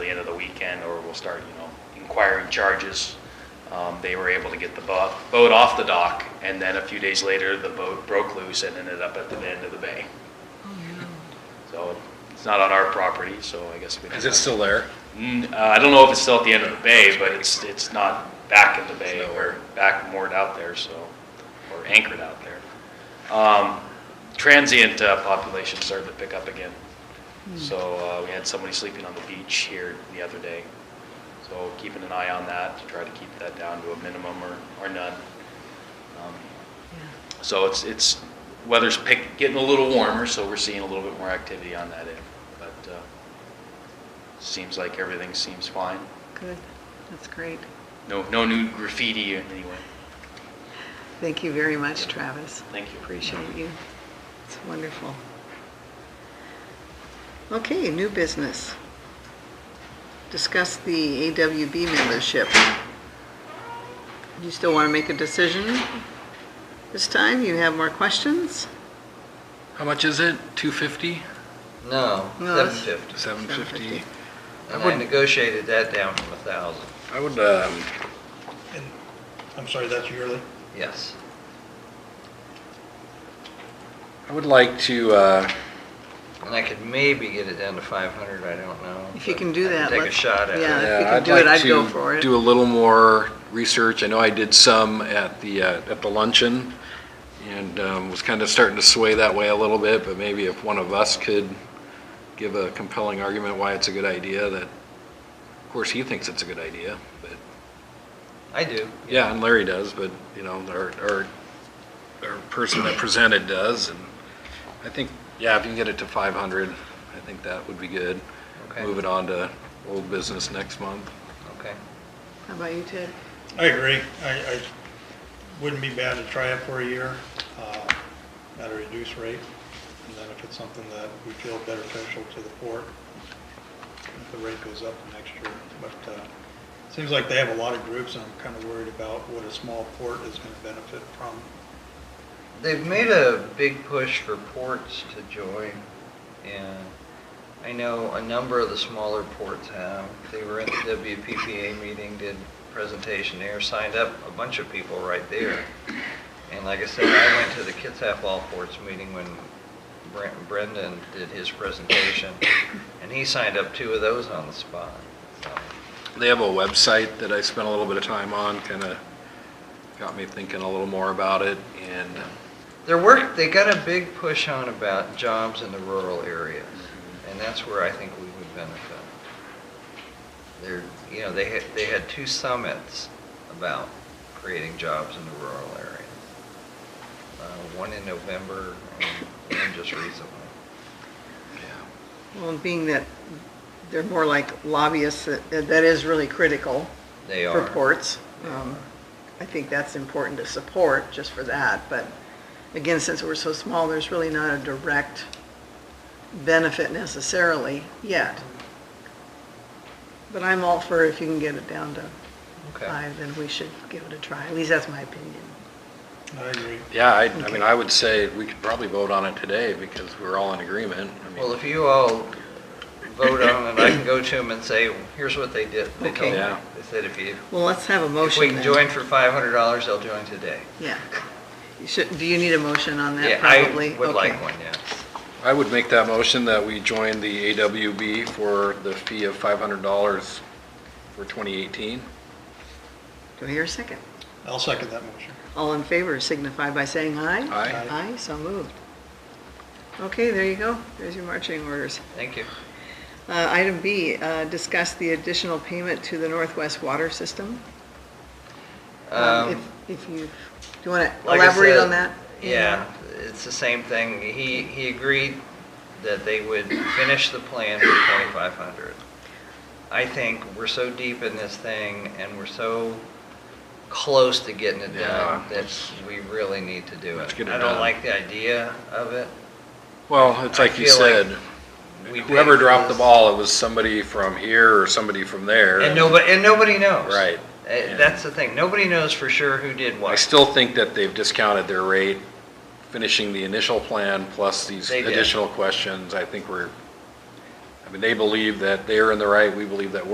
weekend, or we'll start, you know, inquiring charges. Um, They were able to get the bo- boat off the dock, and then a few days later, the boat broke loose and ended up at the end of the bay. Oh, So it's not on our property, so I guess we. Is it still there? Mm, uh, I don't know if it's still at the end of the bay, but it's, it's not back in the bay or back moored out there, so, or anchored out there. Um, Transient uh, population started to pick up again. So uh, we had somebody sleeping on the beach here the other day. So keeping an eye on that to try to keep that down to a minimum or, or none. Um, So it's, it's, weather's pick, getting a little warmer, so we're seeing a little bit more activity on that end. But uh, Seems like everything seems fine. Good, that's great. No, no new graffiti in any way. Thank you very much, Travis. Thank you. Appreciate you. It's wonderful. Okay, new business. Discuss the AWB membership. You still want to make a decision this time? You have more questions? How much is it? Two fifty? No, No, that's- seven fifty. Seven fifty? And I I wouldn't- negotiated that down from a thousand, I would, um, And, I'm sorry, that's yearly? yes. I would like to, uh, And I could maybe get it down to five hundred, I don't know. If you but can do I that, Take a let's- shot at yeah. it. we yeah, could I'd do it, like I'd go for to it. do a little more research. I know I did some at the, uh, at the luncheon and, um, was kind of starting to sway that way a little bit, but maybe if one of us could give a compelling argument why it's a good idea, that, of course, he thinks it's a good idea, but I do. Yeah, and Larry does, but, you know, our, our, our person that presented does, and I think, yeah, if you can get it to five hundred, I think that would be good. Okay. Move it on to old business next month. Okay. How about you, Ted? I agree. I, I, wouldn't be bad to try it for a year, uh, at a reduced rate. And then if it's something that we feel beneficial to the port, if the rate goes up next year. But, uh, seems like they have a lot of groups and I'm kind of worried about what a small port is going to benefit from. They've made a big push for ports to join, and I know a number of the smaller ports have. They were at the WPPA meeting, did presentation there, signed up a bunch of people right there. And like I said, I went to the Kitsap All Ports meeting when Brent- Brendan did his presentation, and he signed up two of those on the spot. So, They have a website that I spent a little bit of time on, kinda got me thinking a little more about it, and Their work, they got a big push on about jobs in the rural areas, and that's where I think we would benefit. They're, you know, they had, they had two summits about creating jobs in the rural areas. Uh, One in November and one just recently. Well, being that they're more like lobbyists, that that is really critical. They are. reports. Um, I think that's important to support, just for that, but again, since we're so small, there's really not a direct benefit necessarily yet. But I'm all for if you can get it down to Okay. five, then we should give it a try. At least that's my opinion. I agree. yeah, I, I mean, I would say we could probably vote on it today, because we're all in agreement. I mean, Well, if you all vote on it, I can go to them and say, here's what they did. They told Okay. me. Yeah. They said if you, Well, let's have a if motion we can then. join for five hundred dollars, they'll join today. Yeah. You should, do you need a motion on that, Yeah, probably? I would Okay. like one, yes. I would make that motion that we join the AWB for the fee of $500 for 2018. Do I hear a second? I'll second that motion. All in favor signify by saying aye. Aye. Aye, so moved. Okay, there you go. There's your marching orders. Thank you. Uh, Item B, uh, discuss the additional payment to the Northwest Water System. Um, Um, If if you, do you want to like I elaborate on that? said, Yeah, it's the same thing. He, he agreed that they would finish the plan for twenty-five hundred. I think we're so deep in this thing and we're so close to getting it Yeah. done that we really need to do Let's it. get it I done. don't like the idea of it. Well, it's like you I feel like said, We whoever paid for dropped the this. ball, it was somebody from here or somebody from there. And nobody, and nobody knows. Right. Uh, That's the thing. Nobody knows for sure who did what. I still think that they've discounted their rate, finishing the initial plan plus these They did. additional questions. I think we're, I mean, they believe that they're in the right, we believe that we're